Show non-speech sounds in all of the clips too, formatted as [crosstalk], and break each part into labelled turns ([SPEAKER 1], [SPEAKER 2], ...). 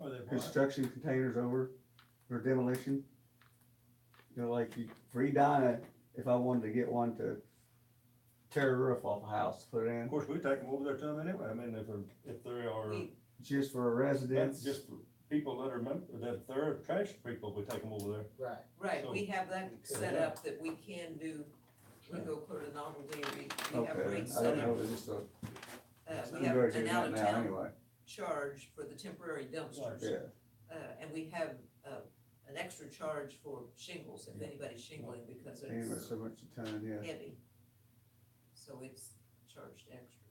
[SPEAKER 1] Oh,
[SPEAKER 2] construction containers over for demolition. You know, like you redine it, if I wanted to get one to tear a roof off a house, put it
[SPEAKER 1] Of
[SPEAKER 2] in,
[SPEAKER 1] course, we take them over there to them anyway, I mean, if they're, if they are,
[SPEAKER 2] just for a
[SPEAKER 1] that's
[SPEAKER 2] residence.
[SPEAKER 1] just for people that are, mem- that they're trash people, we take them over there.
[SPEAKER 3] Right,
[SPEAKER 4] Right, we have that set
[SPEAKER 1] Yeah.
[SPEAKER 4] up that we can do, we go put a novelty, we, we have
[SPEAKER 2] Okay,
[SPEAKER 4] rates
[SPEAKER 2] I
[SPEAKER 4] set
[SPEAKER 2] don't
[SPEAKER 4] up.
[SPEAKER 2] know, it's just a,
[SPEAKER 4] Uh, we have
[SPEAKER 2] we're doing that
[SPEAKER 4] an
[SPEAKER 2] now
[SPEAKER 4] out-of-town
[SPEAKER 2] anyway,
[SPEAKER 4] charge for the temporary dumpsters.
[SPEAKER 2] yeah.
[SPEAKER 4] Uh, and we have, uh, an extra charge for shingles, if anybody's shingling because
[SPEAKER 2] Anyway,
[SPEAKER 4] it's
[SPEAKER 2] so much a ton, yeah.
[SPEAKER 4] heavy. So it's charged extra.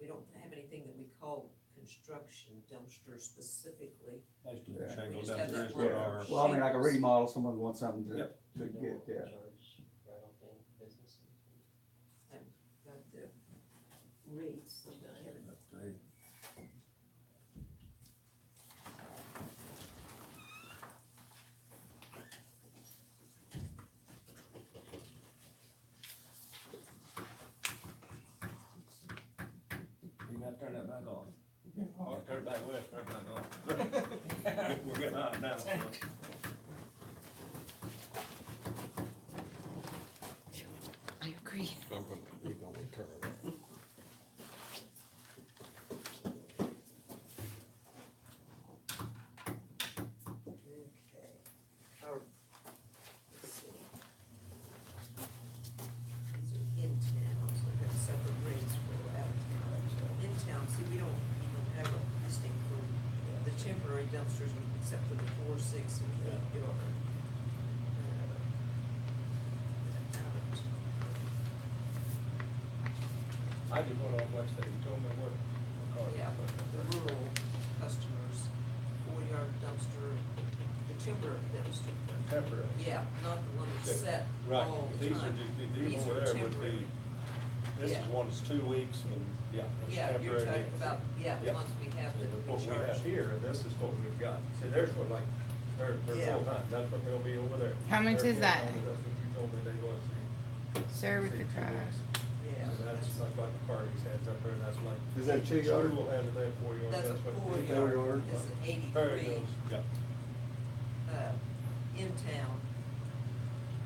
[SPEAKER 4] We don't have anything that we call construction dumpster specifically.
[SPEAKER 1] That's the
[SPEAKER 2] Yeah.
[SPEAKER 1] shingle
[SPEAKER 4] We just have
[SPEAKER 1] downstairs
[SPEAKER 4] that
[SPEAKER 1] with
[SPEAKER 4] one.
[SPEAKER 1] our-
[SPEAKER 2] Well, I mean, like a remodel, someone wants something to,
[SPEAKER 1] Yep.
[SPEAKER 2] to get, yeah.
[SPEAKER 4] Got the rates. and I have it.
[SPEAKER 1] You gotta turn that back on. Oh, turn it back west, turn it back [laughs] on. We're getting hot now.
[SPEAKER 5] I agree.
[SPEAKER 6] I'm gonna, we're gonna turn it off.
[SPEAKER 4] Okay, or, let's see. These are in town, so we've got separate rates for out of town. In town, see, we don't even have a listing for the temporary dumpsters, except for the four, six, and the eight yard. Uh, out of town.
[SPEAKER 7] I just went on Wednesday, you told me what, what car.
[SPEAKER 4] Yeah, the rural customers, four yard dumpster, the temporary dumpster.
[SPEAKER 1] Temporary.
[SPEAKER 4] Yeah, not the one that's set
[SPEAKER 1] Right,
[SPEAKER 4] all the
[SPEAKER 1] these are,
[SPEAKER 4] time.
[SPEAKER 1] just- these
[SPEAKER 4] These are
[SPEAKER 1] over there would be,
[SPEAKER 4] temporary.
[SPEAKER 1] this is
[SPEAKER 4] Yeah.
[SPEAKER 1] one that's two weeks and, yeah. it's
[SPEAKER 4] Yeah, you're
[SPEAKER 1] temporary.
[SPEAKER 4] talking about, yeah, the
[SPEAKER 1] Yeah.
[SPEAKER 4] ones we have that
[SPEAKER 1] What
[SPEAKER 4] we
[SPEAKER 1] we have
[SPEAKER 4] charge.
[SPEAKER 1] here, this is what we've got, see, there's what like, they're,
[SPEAKER 4] Yeah.
[SPEAKER 1] they're full time, that's what they'll be over there.
[SPEAKER 5] How much
[SPEAKER 1] They're
[SPEAKER 5] is
[SPEAKER 1] full
[SPEAKER 5] that?
[SPEAKER 1] time, That's what you told me they was.
[SPEAKER 5] Sir with
[SPEAKER 1] See,
[SPEAKER 5] the
[SPEAKER 1] two
[SPEAKER 5] trash.
[SPEAKER 1] weeks.
[SPEAKER 4] Yeah,
[SPEAKER 1] So that's
[SPEAKER 4] that's,
[SPEAKER 1] like what the parties has up there, that's like.
[SPEAKER 2] Is that two yard?
[SPEAKER 1] School has it there for you.
[SPEAKER 4] that's a
[SPEAKER 1] what-
[SPEAKER 4] four
[SPEAKER 2] four yard.
[SPEAKER 4] yard, that's an
[SPEAKER 1] There it
[SPEAKER 4] eighty-three,
[SPEAKER 1] goes, yeah.
[SPEAKER 4] uh, in town.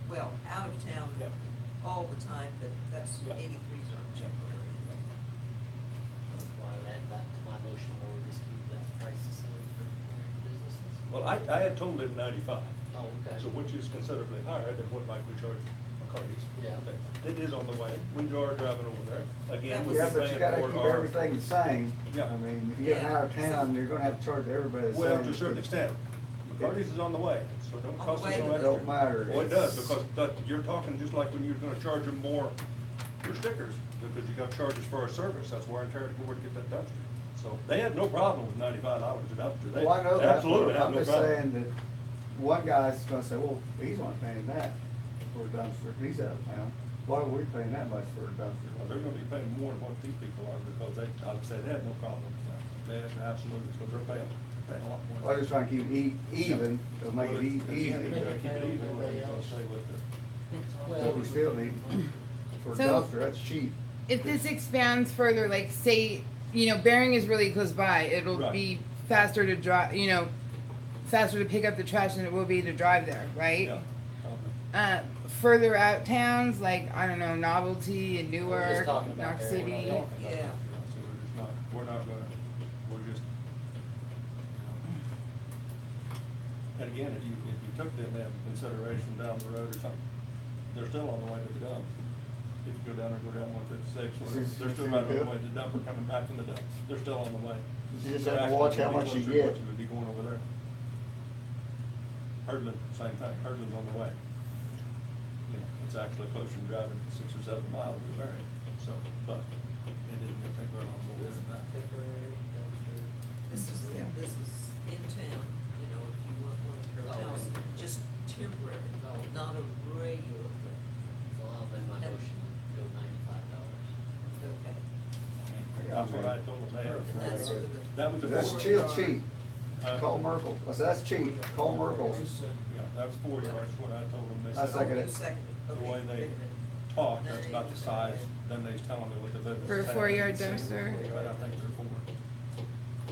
[SPEAKER 4] Well, out of town
[SPEAKER 1] Yeah.
[SPEAKER 4] all the time, but that's
[SPEAKER 1] Yeah.
[SPEAKER 4] eighty-three are temporary.
[SPEAKER 1] Well, I, I had told him ninety-five,
[SPEAKER 3] oh, okay.
[SPEAKER 1] so which is considerably higher than what like we charge McCarty's.
[SPEAKER 3] Yeah.
[SPEAKER 1] It is on the way, we are driving over there, again,
[SPEAKER 4] That
[SPEAKER 1] we've
[SPEAKER 2] Yeah,
[SPEAKER 1] been
[SPEAKER 2] but you
[SPEAKER 1] paying
[SPEAKER 2] gotta
[SPEAKER 1] for
[SPEAKER 2] keep
[SPEAKER 1] our.
[SPEAKER 2] everything the same.
[SPEAKER 1] Yeah.
[SPEAKER 2] I mean, if you get
[SPEAKER 4] Yeah.
[SPEAKER 2] out of town, you're gonna have to charge everybody the same.
[SPEAKER 1] Well, to a certain extent, McCarty's is on the way, so don't
[SPEAKER 4] On the
[SPEAKER 1] cost us
[SPEAKER 4] way.
[SPEAKER 1] no
[SPEAKER 4] It
[SPEAKER 1] extra.
[SPEAKER 2] don't matter.
[SPEAKER 1] Well, it does,
[SPEAKER 2] It's-
[SPEAKER 1] because that, you're talking just like when you're gonna charge them more, your stickers, because you got charges for our service, that's why I'm trying to go to get that dumpster. So they had no problem with ninety-five dollars a dumpster, they
[SPEAKER 2] Well, I know that.
[SPEAKER 1] absolutely
[SPEAKER 2] but
[SPEAKER 1] have
[SPEAKER 2] I'm
[SPEAKER 1] no
[SPEAKER 2] just
[SPEAKER 1] problem.
[SPEAKER 2] saying that one guy's gonna say, well, he's not paying that for a dumpster, he's out of town. Why are we paying that much for a
[SPEAKER 1] Well, They're
[SPEAKER 2] dumpster?
[SPEAKER 1] gonna be paying more than what these people are, because they, like I said, they had no problem with that, they had absolutely, because they're paying, paying a lot more.
[SPEAKER 2] I'm just trying to keep it e- even, to make
[SPEAKER 1] Well, it's-
[SPEAKER 2] it e-
[SPEAKER 1] it's- you
[SPEAKER 2] easy,
[SPEAKER 1] gotta Keep it even, or you're gonna stay with it.
[SPEAKER 2] but we still need, for a
[SPEAKER 5] So-
[SPEAKER 2] dumpster, that's cheap.
[SPEAKER 5] If this expands further, like say, you know, Bering is really close by, it'll
[SPEAKER 1] Right.
[SPEAKER 5] be faster to drive, you know, faster to pick up the trash than it will be to drive there, right?
[SPEAKER 1] Yeah. probably.
[SPEAKER 5] Uh, further out towns, like, I don't know, Novelty and
[SPEAKER 3] We're just
[SPEAKER 5] Newark,
[SPEAKER 3] talking about
[SPEAKER 5] Knox
[SPEAKER 3] Bering, we're not
[SPEAKER 5] City.
[SPEAKER 3] talking
[SPEAKER 1] So
[SPEAKER 4] Yeah.
[SPEAKER 1] we're just not, we're not gonna, we're just. And again, if you, if you took them into consideration down the road or something, they're still on the way to the dump. If you go down or go down one fifty-six, they're still right on the way to the dump or coming back from the dump, they're still on the way.
[SPEAKER 2] You just have to watch how much you get.
[SPEAKER 1] Would be going over there. Herdman, same thing, Herdman's on the way. You know, It's actually closer than driving six or seven miles to Marion, so, but it didn't take very long to visit that.
[SPEAKER 4] temporary dumpster. This is, this is in town, you know, if you want one of your house, just temporary, not a regular thing.
[SPEAKER 3] So I'll amend my motion, go ninety-five dollars.
[SPEAKER 4] Okay,
[SPEAKER 1] That's what I told them there.
[SPEAKER 4] that's for the.
[SPEAKER 1] That was the.
[SPEAKER 2] That's
[SPEAKER 1] four-
[SPEAKER 2] still cheap,
[SPEAKER 1] Huh?
[SPEAKER 2] call Merkel, I said, that's cheap, call Merkel.
[SPEAKER 1] Yeah, that was four yards, that's what I told them. They
[SPEAKER 2] I
[SPEAKER 1] said,
[SPEAKER 2] second it.
[SPEAKER 4] You second it,
[SPEAKER 1] The
[SPEAKER 4] okay.
[SPEAKER 1] way
[SPEAKER 4] wait a
[SPEAKER 1] they
[SPEAKER 4] minute.
[SPEAKER 1] talk, that's about the size, then they was telling me what the. business
[SPEAKER 5] For a
[SPEAKER 1] plan
[SPEAKER 5] four-yard
[SPEAKER 1] is.
[SPEAKER 5] dumpster?
[SPEAKER 1] But I think they're